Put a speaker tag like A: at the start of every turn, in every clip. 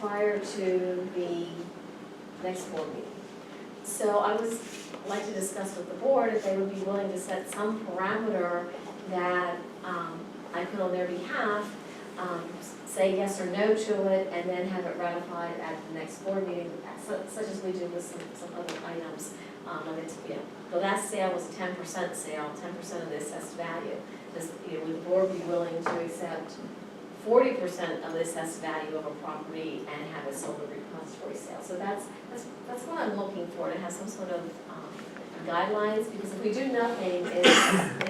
A: prior to the next board meeting. So I was, like to discuss with the board if they would be willing to set some parameter that um, I put on their behalf, um, say yes or no to it, and then have it ratified at the next board meeting, su- such as we do with some, some other items. Um, and it's, you know, the last sale was a ten percent sale, ten percent of the assessed value. Does, you know, would the board be willing to accept forty percent of the assessed value of a property and have it sold at repository sale. So that's, that's, that's what I'm looking for, to have some sort of um, guidelines, because if we do nothing, it's,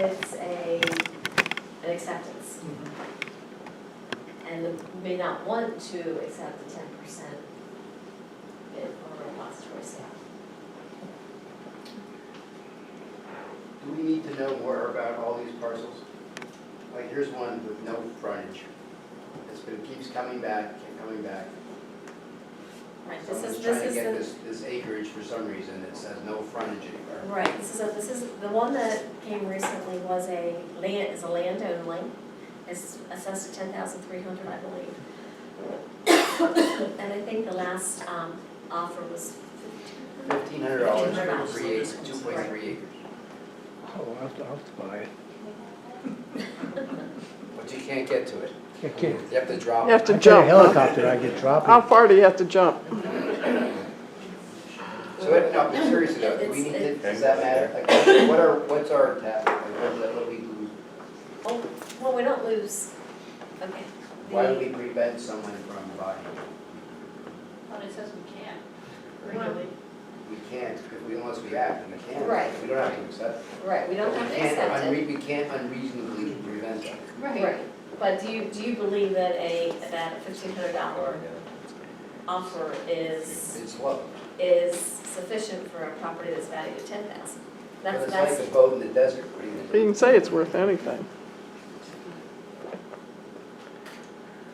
A: it's a, an acceptance. And the- may not want to accept the ten percent bid or repository sale.
B: Do we need to know more about all these parcels? Like, here's one with no frontage. It's been, keeps coming back and coming back.
A: Right, this
B: Someone's
A: is,
B: trying
A: this
B: to
A: is
B: get
A: the
B: this, this acreage for some reason that says no frontage anywhere.
A: Right, this is a, this is, the one that came recently was a land, is a land only, it's assessed at ten thousand three hundred, I believe. And I think the last, um, offer was
B: Fifteen hundred dollars
A: $1,500
B: for three acres, two point three acres.
C: Oh, I'll have to, I'll have to buy it.
B: But you can't get to it.
C: I can't.
B: You have to drop
D: You have
B: it.
D: to
C: I get a
D: jump, huh?
C: helicopter, I get
D: How
C: dropped.
D: far do you have to jump?
B: So, if- no, I'm serious about it. Do we need to, does that matter? Like, what are, what's our tap? Like, what, what do we lose?
A: Oh, well, we don't lose, okay.
B: Why do
A: the-
B: we prevent someone from buying?
E: But it says we can't, really.
B: We can't, if we- unless we act, and we can't.
A: Right.
B: We don't have to accept. it.
A: Right, we don't have to
B: can't
A: accept it.
B: unre- We can't unreasonably prevent that.
A: Right, but do you, do you believe that a, that a fifteen hundred dollar offer is,
B: It's low.
A: is sufficient for a property that's valued at ten thousand?
B: But
A: That's,
B: It's like
A: that's,
B: the boat in the desert. What are you
D: You
B: gonna do?
D: can say it's worth anything.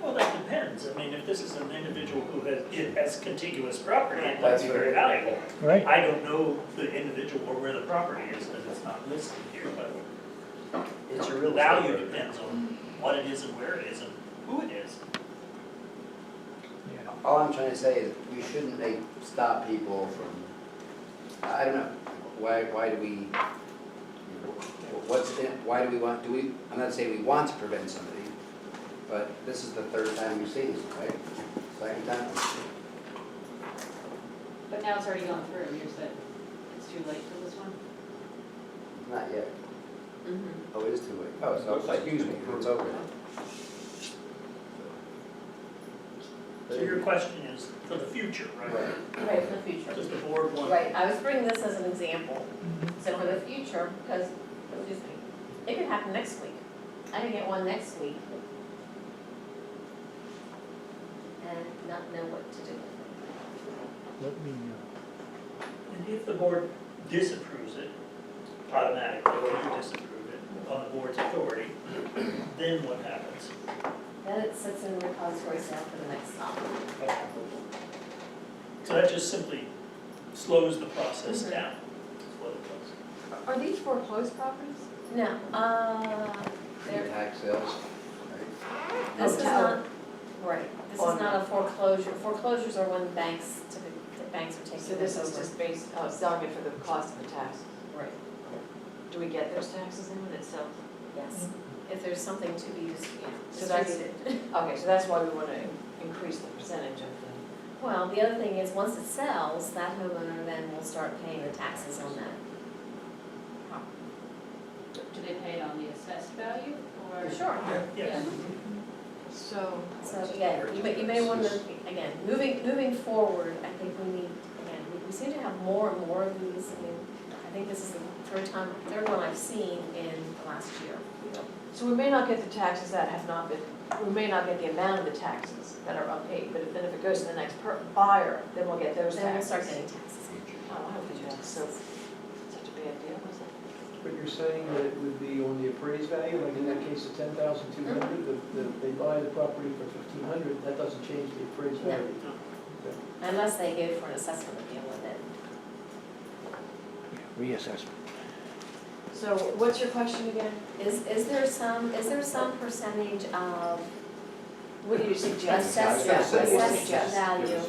F: Well, that depends. I mean, if this is an individual who has, it has contiguous property, it might
B: That's
F: be
B: what-
F: very valuable.
C: Right,
F: I don't know the individual or where the property is, because it's not listed here, but
B: It's a
F: the
B: real
F: value
B: estate.
F: depends on what it is and where it is and who it is.
B: All I'm trying to say is, we shouldn't make, stop people from, I don't know, why, why do we, what's, in- why do we want, do we, I'm not saying we want to prevent somebody, but this is the third time we've seen this, right? Second time.
E: But now it's already gone through, you said it's too late for this one?
B: Not yet.
A: mhm.
B: Oh, it is too late. Oh, so, excuse me, it's over.
F: So your question is for the future, right?
B: Right.
A: Right, for the future.
F: Does the board want?
A: Right, I was bringing this as an example, so for the future, because, excuse me, it could happen next week. I could get one next week. And not know what to do with
C: let me uh, know.
F: And if the board disapproves it automatically, or you disapprove it on the board's authority, then what happens?
A: it. Then it sits in repository sale for the next offer.
F: So that just simply slows the process
A: Mhm.
F: down. is what it does.
D: Are these foreclosed properties?
A: No, uh, there,
B: Tax sales, right?
A: this is
D: Hotel.
A: not, right, this is not a foreclosure. Foreclosures are when banks, typically, the banks are taking
G: So this is
A: over.
G: just based, oh, selling it for the cost of the tax.
A: Right,
G: Do we get those taxes in when it's sold?
A: yes. If there's something to be, dis- yeah,
G: So that's-
A: distributed.
G: Okay, so that's why we want to increase the percentage of the,
A: Well, the other thing is, once it sells, that homeowner then will start paying the taxes on that.
E: Do they pay it on the assessed value or?
A: Sure.
F: Yes.
G: so.
A: So, again, you may, you may wanna, again, moving, moving forward, I think we need, again, we- we seem to have more and more of these, I mean, I think this is the third time, third one I've seen in the last year.
G: So we may not get the taxes that have not been, we may not get the amount of the taxes that are unpaid, but if- then if it goes to the next per- buyer, then we'll get those taxes.
A: Then we'll start getting taxes.
G: Oh, I hope you do so, such a bad deal, was it?
H: But you're saying that it would be on the appraised value, like in that case, the ten thousand two hundred, the, the, they buy the property for fifteen hundred, that doesn't change the appraised
A: No.
H: value.
A: Unless they go for an assessment appeal with it.
C: Reassessment.
G: So what's your question again?
A: Is, is there some, is there some percentage of
G: What do you suggest?
A: Assess,
G: Yeah, what do you
A: assess
G: suggest?
A: value.